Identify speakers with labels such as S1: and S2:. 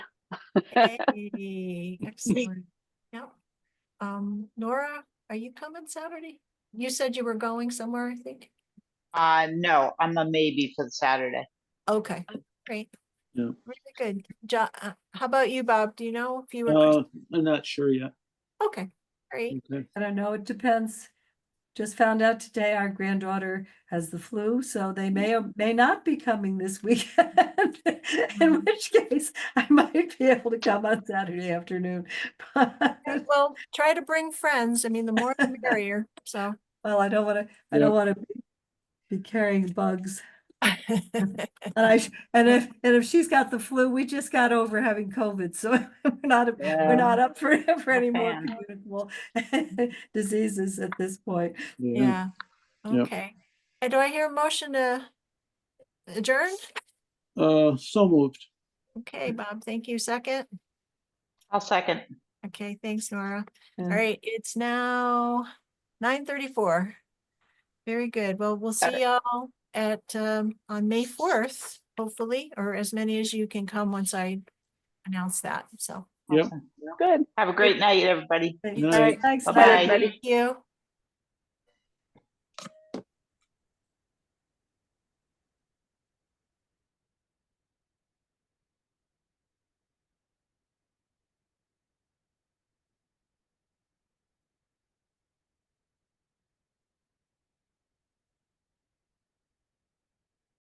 S1: Hey, Excellent. Yeah. Um, Nora, are you coming Saturday? You said you were going somewhere, I think.
S2: Uh, no, I'm a maybe for Saturday.
S1: Okay, great.
S3: Uh, Yeah.
S1: Really good. Jo- uh, how about you, Bob? Do you know if you were,
S3: Uh, I'm not sure yet.
S1: okay, great.
S3: Okay.
S4: I don't know, it depends. Just found out today our granddaughter has the flu, so they may or may not be coming this weekend. In
S2: Mm-hmm.
S1: Mm.
S4: which case, I might be able to come on Saturday afternoon. But,
S1: Okay, Well, try to bring friends. I mean, the more the merrier, so.
S4: well, I don't wanna, I
S3: Yeah.
S4: don't wanna be- be carrying bugs. And I, sh- and if, and if she's got the flu, we just got over having COVID, so we're not,
S2: Yeah.
S4: we're not up for, for any more
S2: fan.
S4: communicable diseases at this point.
S1: Yeah,
S3: Yep.
S1: okay. And do I hear a motion to adjourn?
S3: Uh, so moved.
S1: Okay, Bob, thank you. Second.
S2: I'll second.
S1: Okay, thanks, Nora. All
S4: Yeah.
S1: right, it's now nine thirty-four. Very good. Well, we'll
S2: Got
S1: see y'all at, um, on May fourth, hopefully, or as many as you can come once I announce that, so.
S3: Yep.
S2: Awesome.
S5: Good.
S2: Have a great night, everybody.
S4: Thank-
S3: Night.
S4: Thanks,
S2: Bye-bye.
S4: Larry.
S1: Thank you.